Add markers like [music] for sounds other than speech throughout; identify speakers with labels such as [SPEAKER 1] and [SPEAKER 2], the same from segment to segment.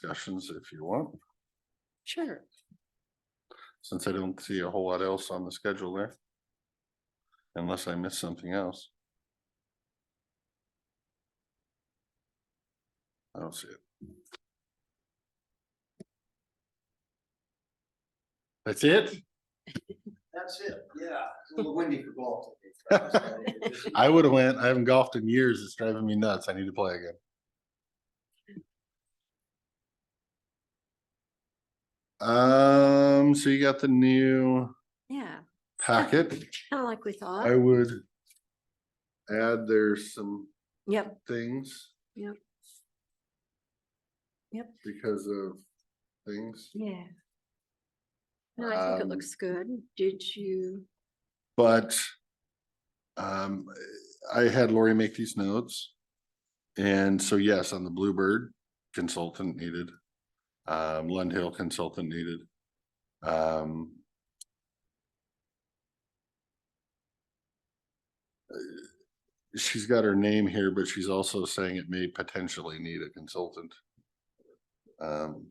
[SPEAKER 1] discussions if you want,
[SPEAKER 2] Sure.
[SPEAKER 1] since I don't see a whole lot else on the schedule there. Unless I missed something else. I don't see it. That's it?
[SPEAKER 3] That's it, yeah. It's a little windy for golf.
[SPEAKER 1] [laughs]
[SPEAKER 3] today.
[SPEAKER 1] I would have went. I haven't golfed in years. It's driving me nuts. I need to play again. Um, so you got the new
[SPEAKER 2] Yeah,
[SPEAKER 1] packet.
[SPEAKER 2] kind of like we
[SPEAKER 1] I
[SPEAKER 2] thought.
[SPEAKER 1] would add there's some
[SPEAKER 2] Yep,
[SPEAKER 1] things.
[SPEAKER 2] Yep. Yep.
[SPEAKER 1] Because of things,
[SPEAKER 2] yeah. No, I think it
[SPEAKER 1] Um,
[SPEAKER 2] looks good. Did you?
[SPEAKER 1] but um, I had Lori make these notes. And so yes, on the Bluebird consultant needed, um, Lund Hill consultant needed. Um. uh, She's got her name here, but she's also saying it may potentially need a consultant. Um.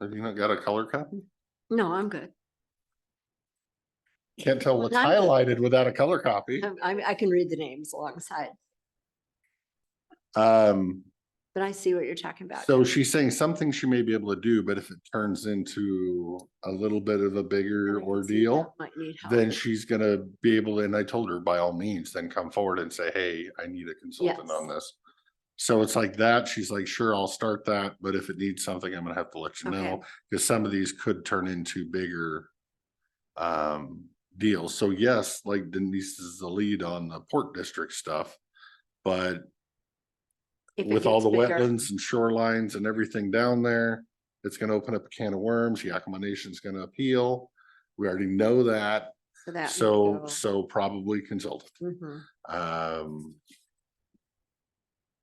[SPEAKER 1] Have you not got a color copy?
[SPEAKER 2] No, I'm good.
[SPEAKER 1] Can't tell
[SPEAKER 2] Well, Oh.
[SPEAKER 1] what's
[SPEAKER 2] that's-
[SPEAKER 1] highlighted without a color copy.
[SPEAKER 2] I- I, I can read the names alongside,
[SPEAKER 1] Um,
[SPEAKER 2] but I see what you're talking about.
[SPEAKER 1] so she's saying something she may be able to do, but if it turns into a little bit of a
[SPEAKER 2] And I
[SPEAKER 1] bigger
[SPEAKER 2] can see that
[SPEAKER 1] ordeal.
[SPEAKER 2] Might need help.
[SPEAKER 1] Then she's gonna be able, and I told her by all means, then come forward and say, hey, I need a consultant on
[SPEAKER 2] Yes.
[SPEAKER 1] this. So it's like that, she's like, sure, I'll start that, but if it needs something, I'm gonna have to let you
[SPEAKER 2] Okay.
[SPEAKER 1] know, because some of these could turn into bigger. Um, deals, so yes, like Denise is the lead on the Port District stuff, but
[SPEAKER 2] If it
[SPEAKER 1] with all the
[SPEAKER 2] gets bigger.
[SPEAKER 1] wetlands and shorelines and everything down there. It's gonna open up a can of worms, Yakima Nation's gonna appeal, we already know that.
[SPEAKER 2] So that. may
[SPEAKER 1] So,
[SPEAKER 2] go.
[SPEAKER 1] so probably consultant,
[SPEAKER 2] Mhm.
[SPEAKER 1] um.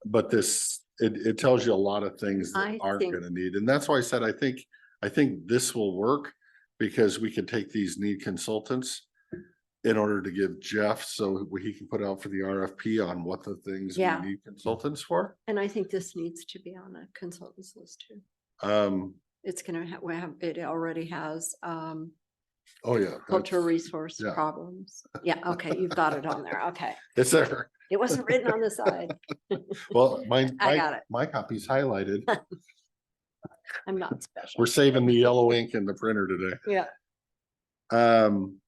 [SPEAKER 1] But this, it, it tells you a lot of things that
[SPEAKER 2] I
[SPEAKER 1] aren't
[SPEAKER 2] think-
[SPEAKER 1] gonna need, and that's why I said, I think, I think this will work. Because we could take these need consultants in order to give Jeff, so he can put out for the RFP on what the things we
[SPEAKER 2] Yeah.
[SPEAKER 1] need consultants for.
[SPEAKER 2] And I think this needs to be on a consultant's list too.
[SPEAKER 1] Um,
[SPEAKER 2] It's gonna have, we have, it already has, um,
[SPEAKER 1] oh yeah.
[SPEAKER 2] cultural
[SPEAKER 1] that's-
[SPEAKER 2] resource
[SPEAKER 1] yeah.
[SPEAKER 2] problems.
[SPEAKER 1] [laughs]
[SPEAKER 2] Yeah, okay, you've got it on there. Okay.
[SPEAKER 1] It's there.
[SPEAKER 2] It wasn't written on
[SPEAKER 1] [laughs]
[SPEAKER 2] the side. [laughs]
[SPEAKER 1] Well, my,
[SPEAKER 2] I
[SPEAKER 1] my,
[SPEAKER 2] got it.
[SPEAKER 1] my copy's
[SPEAKER 2] [laughs]
[SPEAKER 1] highlighted.
[SPEAKER 2] I'm not special.
[SPEAKER 1] We're saving the yellow ink in the printer today.
[SPEAKER 2] Yeah,
[SPEAKER 1] Um,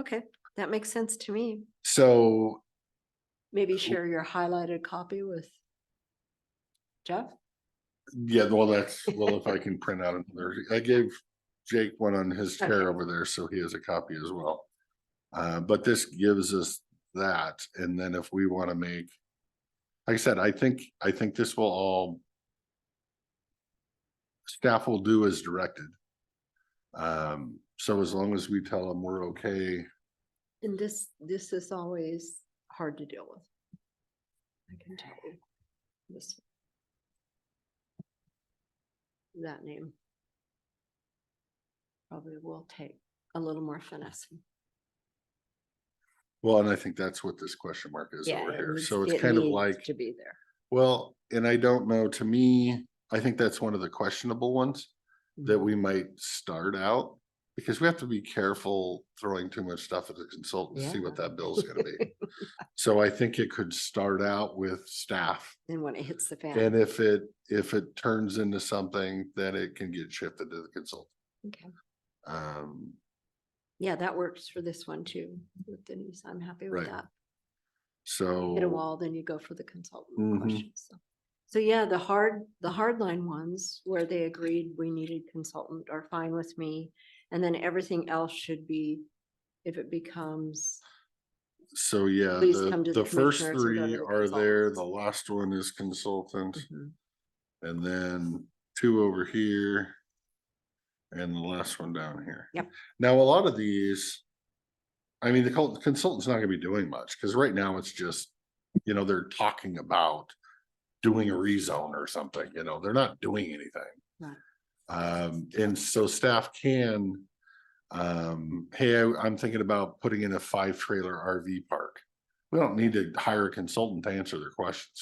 [SPEAKER 2] okay, that makes sense to me.
[SPEAKER 1] so
[SPEAKER 2] Maybe share your highlighted copy with Jeff?
[SPEAKER 1] Yeah, well, that's, well, if I can print out another, I gave Jake one on his chair
[SPEAKER 2] Okay.
[SPEAKER 1] over there, so he has a copy as well. Uh, but this gives us that, and then if we want to make, like I said, I think, I think this will all staff will do as directed. Um, so as long as we tell them we're okay,
[SPEAKER 2] And this, this is always hard to deal with. I can tell you. This. That name. Probably will take a little more finessing.
[SPEAKER 1] well, and I think that's what this question mark is
[SPEAKER 2] Yeah,
[SPEAKER 1] over
[SPEAKER 2] it
[SPEAKER 1] here,
[SPEAKER 2] needs-
[SPEAKER 1] so it's
[SPEAKER 2] it
[SPEAKER 1] kind of
[SPEAKER 2] needs
[SPEAKER 1] like.
[SPEAKER 2] To be there.
[SPEAKER 1] Well, and I don't know, to me, I think that's one of the questionable ones that we might start out. Because we have to be careful throwing too much stuff at the consultant to see what that bill is gonna
[SPEAKER 2] [laughs]
[SPEAKER 1] be. So I think it could start out with staff.
[SPEAKER 2] And when it hits the
[SPEAKER 1] And
[SPEAKER 2] fan.
[SPEAKER 1] if it, if it turns into something, then it can get shifted to the consultant.
[SPEAKER 2] Okay.
[SPEAKER 1] Um,
[SPEAKER 2] Yeah, that works for this one too. With Denise, I'm happy with
[SPEAKER 1] Right. Oh.
[SPEAKER 2] that.
[SPEAKER 1] so.
[SPEAKER 2] hit a wall, then you go for the consultant
[SPEAKER 1] Mhm.
[SPEAKER 2] questions. so. So yeah, the hard, the hard line ones where they agreed we needed consultant are fine with me. And then everything else should be, if it becomes,
[SPEAKER 1] So, yeah,
[SPEAKER 2] Please come
[SPEAKER 1] the,
[SPEAKER 2] to the
[SPEAKER 1] the first
[SPEAKER 2] commissioners or go
[SPEAKER 1] three
[SPEAKER 2] to the
[SPEAKER 1] are there,
[SPEAKER 2] consultants.
[SPEAKER 1] the last one is consultant.
[SPEAKER 2] Mhm.
[SPEAKER 1] And then two over here. And the last one down here.
[SPEAKER 2] Yep.
[SPEAKER 1] Now, a lot of these. I mean, the col- consultant's not gonna be doing much, cause right now it's just, you know, they're talking about. Doing a rezone or something, you know, they're not doing anything.
[SPEAKER 2] Right.
[SPEAKER 1] Um, and so staff can. Um, hey, I- I'm thinking about putting in a five trailer RV park. We don't need to hire a consultant to answer their questions.